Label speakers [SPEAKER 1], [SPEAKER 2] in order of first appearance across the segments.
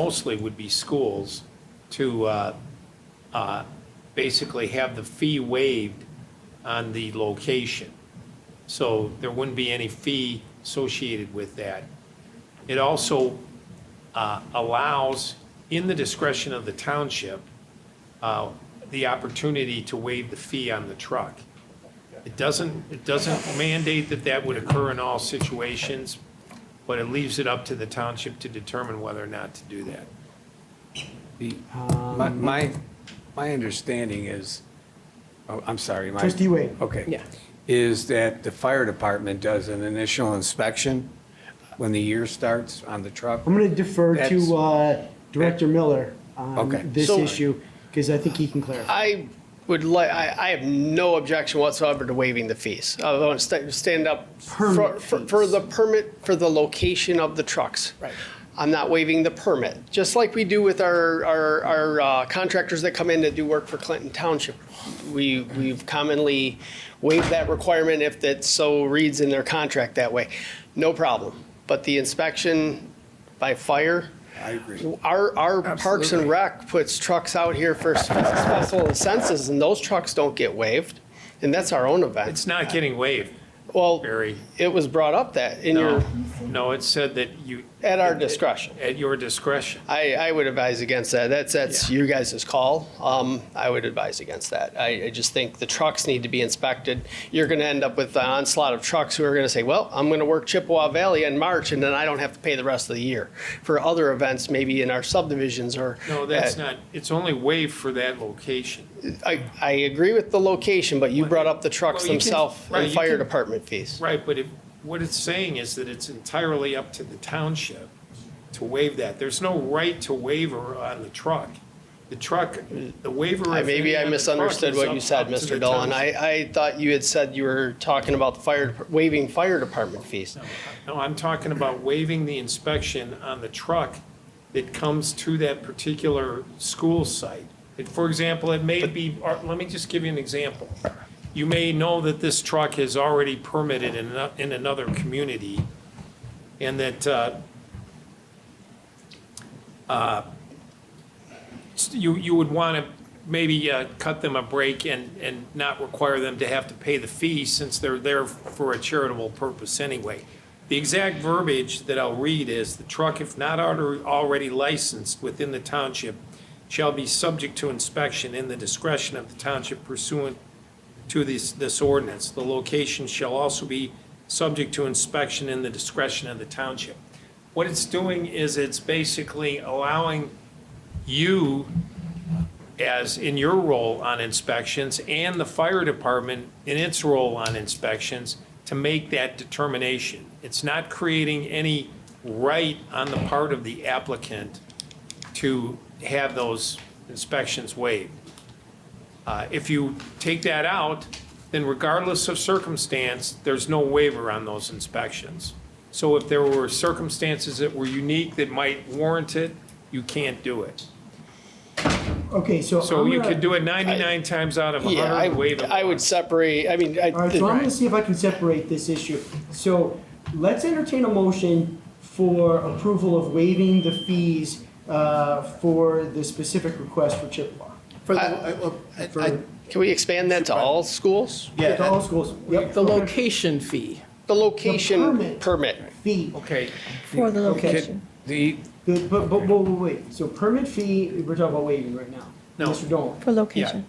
[SPEAKER 1] mostly would be schools, to uh, uh, basically have the fee waived on the location. So there wouldn't be any fee associated with that. It also uh, allows, in the discretion of the township, uh, the opportunity to waive the fee on the truck. It doesn't, it doesn't mandate that that would occur in all situations, but it leaves it up to the township to determine whether or not to do that.
[SPEAKER 2] The-
[SPEAKER 3] Um,
[SPEAKER 2] My, my, my understanding is, oh, I'm sorry, my.
[SPEAKER 3] Trustee Wade.
[SPEAKER 2] Okay.
[SPEAKER 4] Yeah.
[SPEAKER 2] Is that the fire department does an initial inspection when the year starts on the truck?
[SPEAKER 3] I'm going to defer
[SPEAKER 2] That's-
[SPEAKER 3] to uh, Director Miller
[SPEAKER 2] Okay.
[SPEAKER 3] on this
[SPEAKER 4] So-
[SPEAKER 3] issue because I think he can clarify.
[SPEAKER 4] I would like, I, I have no objection whatsoever to waiving the fees. I want to sta- stand up for,
[SPEAKER 3] Permit
[SPEAKER 4] for
[SPEAKER 3] fees.
[SPEAKER 4] for the permit for the location of the trucks.
[SPEAKER 3] Right.
[SPEAKER 4] I'm not waiving the permit, just like we do with our, our, our uh, contractors that come in to do work for Clinton Township. We, we've commonly waived that requirement if that so reads in their contract that way. No problem. But the inspection by fire,
[SPEAKER 2] I agree.
[SPEAKER 4] our, our Parks and
[SPEAKER 1] Absolutely.
[SPEAKER 4] Rec puts trucks out here for spe- special census, and those trucks don't get waived, and that's our own event.
[SPEAKER 1] It's not getting waived,
[SPEAKER 4] Well,
[SPEAKER 1] Barry.
[SPEAKER 4] it was brought up that in your,
[SPEAKER 1] No, no, it said that you.
[SPEAKER 4] at our discretion.
[SPEAKER 1] At your discretion.
[SPEAKER 4] I, I would advise against that. That's, that's
[SPEAKER 1] Yeah.
[SPEAKER 4] you guys' call. Um, I would advise against that. I, I just think the trucks need to be inspected. You're gonna end up with the onslaught of trucks who are gonna say, well, I'm gonna work Chippewa Valley in March, and then I don't have to pay the rest of the year for other events, maybe in our subdivisions or.
[SPEAKER 1] No, that's
[SPEAKER 4] at-
[SPEAKER 1] not, it's only waived for that location.
[SPEAKER 4] I, I agree with the location, but you brought up the trucks
[SPEAKER 1] Well, you can-
[SPEAKER 4] themselves
[SPEAKER 1] right,
[SPEAKER 4] and
[SPEAKER 1] you
[SPEAKER 4] fire
[SPEAKER 1] can-
[SPEAKER 4] department fees.
[SPEAKER 1] Right, but it, what it's saying is that it's entirely up to the township to waive that. There's no right to waiver on the truck. The truck, the waiver.
[SPEAKER 4] I-
[SPEAKER 1] of
[SPEAKER 4] Maybe
[SPEAKER 1] any
[SPEAKER 4] I
[SPEAKER 1] on the truck
[SPEAKER 4] misunderstood
[SPEAKER 1] is
[SPEAKER 4] what
[SPEAKER 1] up-
[SPEAKER 4] you said,
[SPEAKER 1] up to the
[SPEAKER 4] Mr. Dolan. I,
[SPEAKER 1] township.
[SPEAKER 4] I thought you had said you were talking about the fire, dep- waiving fire department fees.
[SPEAKER 1] No, I'm talking about waiving the inspection on the truck that comes to that particular school site. It- For example, it may be, or let me just give you an example. You may know that this truck is already permitted in, ano- in another community and that, uh, uh, you, you would want to maybe uh, cut them a break and, and not require them to have to pay the fee since they're there for a charitable purpose anyway. The exact verbiage that I'll read is, "The truck, if not alre- already licensed within the township, shall be subject to inspection in the discretion of the township pursuant to this, this ordinance. The location shall also be subject to inspection in the discretion of the township." What it's doing is it's basically allowing you, as in your role on inspections, and the fire department in its role on inspections, to make that determination. It's not creating any right on the part of the applicant to have those inspections waived. Uh, If you take that out, then regardless of circumstance, there's no waiver on those inspections. So if there were circumstances that were unique that might warrant it, you can't do it.
[SPEAKER 3] Okay, so.
[SPEAKER 1] So
[SPEAKER 3] I'm
[SPEAKER 1] you
[SPEAKER 3] gonna-
[SPEAKER 1] could do it 99 times out of
[SPEAKER 4] Yeah, I,
[SPEAKER 1] 100, waive it
[SPEAKER 4] I would
[SPEAKER 1] once.
[SPEAKER 4] separate, I mean,
[SPEAKER 3] All right, so I'm
[SPEAKER 4] I,
[SPEAKER 3] going to see if I can separate this issue. So let's entertain a motion for approval of waiving the fees uh, for the specific request for Chippewa.
[SPEAKER 5] For the, I- I-
[SPEAKER 3] For-
[SPEAKER 5] I-
[SPEAKER 4] can we expand that to all schools?
[SPEAKER 3] To all schools. Yep,
[SPEAKER 6] The
[SPEAKER 3] okay.
[SPEAKER 6] location fee.
[SPEAKER 4] The location
[SPEAKER 3] permit.
[SPEAKER 4] permit.
[SPEAKER 3] Fee.
[SPEAKER 1] Okay,
[SPEAKER 7] For the location.
[SPEAKER 2] The,
[SPEAKER 3] The- But, but, wait, wait, wait. So permit fee, we're talking about waiving right now.
[SPEAKER 1] No.
[SPEAKER 3] Mr. Dolan.
[SPEAKER 7] For
[SPEAKER 1] yeah.
[SPEAKER 7] location.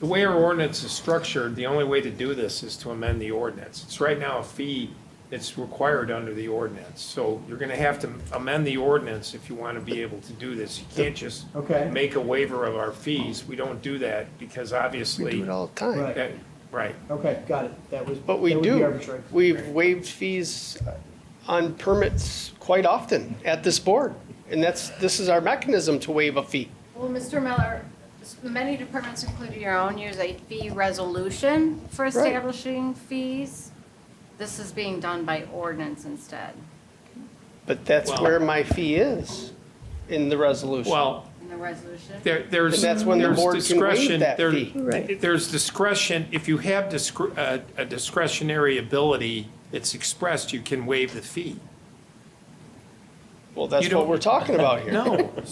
[SPEAKER 1] The way our ordinance is structured, the only way to do this is to amend the ordinance. It's right now a fee that's required under the ordinance. So you're going to have to amend the ordinance if you want to be able to do this. You can't just
[SPEAKER 3] Okay.
[SPEAKER 1] make a waiver of our fees. We don't do that because
[SPEAKER 4] We do
[SPEAKER 1] obviously,
[SPEAKER 4] it all the time.
[SPEAKER 3] Right.
[SPEAKER 1] that- right.
[SPEAKER 3] Okay, got it. That was.
[SPEAKER 4] But we
[SPEAKER 3] that would be
[SPEAKER 4] do,
[SPEAKER 3] arbitrary.
[SPEAKER 4] we've waived fees on permits quite often at this board. And that's, this is our mechanism to waive a fee.
[SPEAKER 8] Well, Mr. Miller, s- many departments, including your own, use a fee resolution for establishing fees. This is being done by ordinance instead.
[SPEAKER 4] But that's
[SPEAKER 1] Well-
[SPEAKER 4] where my fee is in the resolution.
[SPEAKER 1] Well,
[SPEAKER 8] In the resolution,
[SPEAKER 1] There, there's,
[SPEAKER 4] And that's when the
[SPEAKER 1] there's
[SPEAKER 4] board can waive
[SPEAKER 1] discretion,
[SPEAKER 4] that
[SPEAKER 1] there,
[SPEAKER 4] fee.
[SPEAKER 7] Right.
[SPEAKER 1] there's discretion, if you have discre- uh, a discretionary ability that's expressed, you can waive the fee.
[SPEAKER 4] Well, that's
[SPEAKER 1] You
[SPEAKER 4] what
[SPEAKER 1] don't-
[SPEAKER 4] we're talking about here.
[SPEAKER 1] No,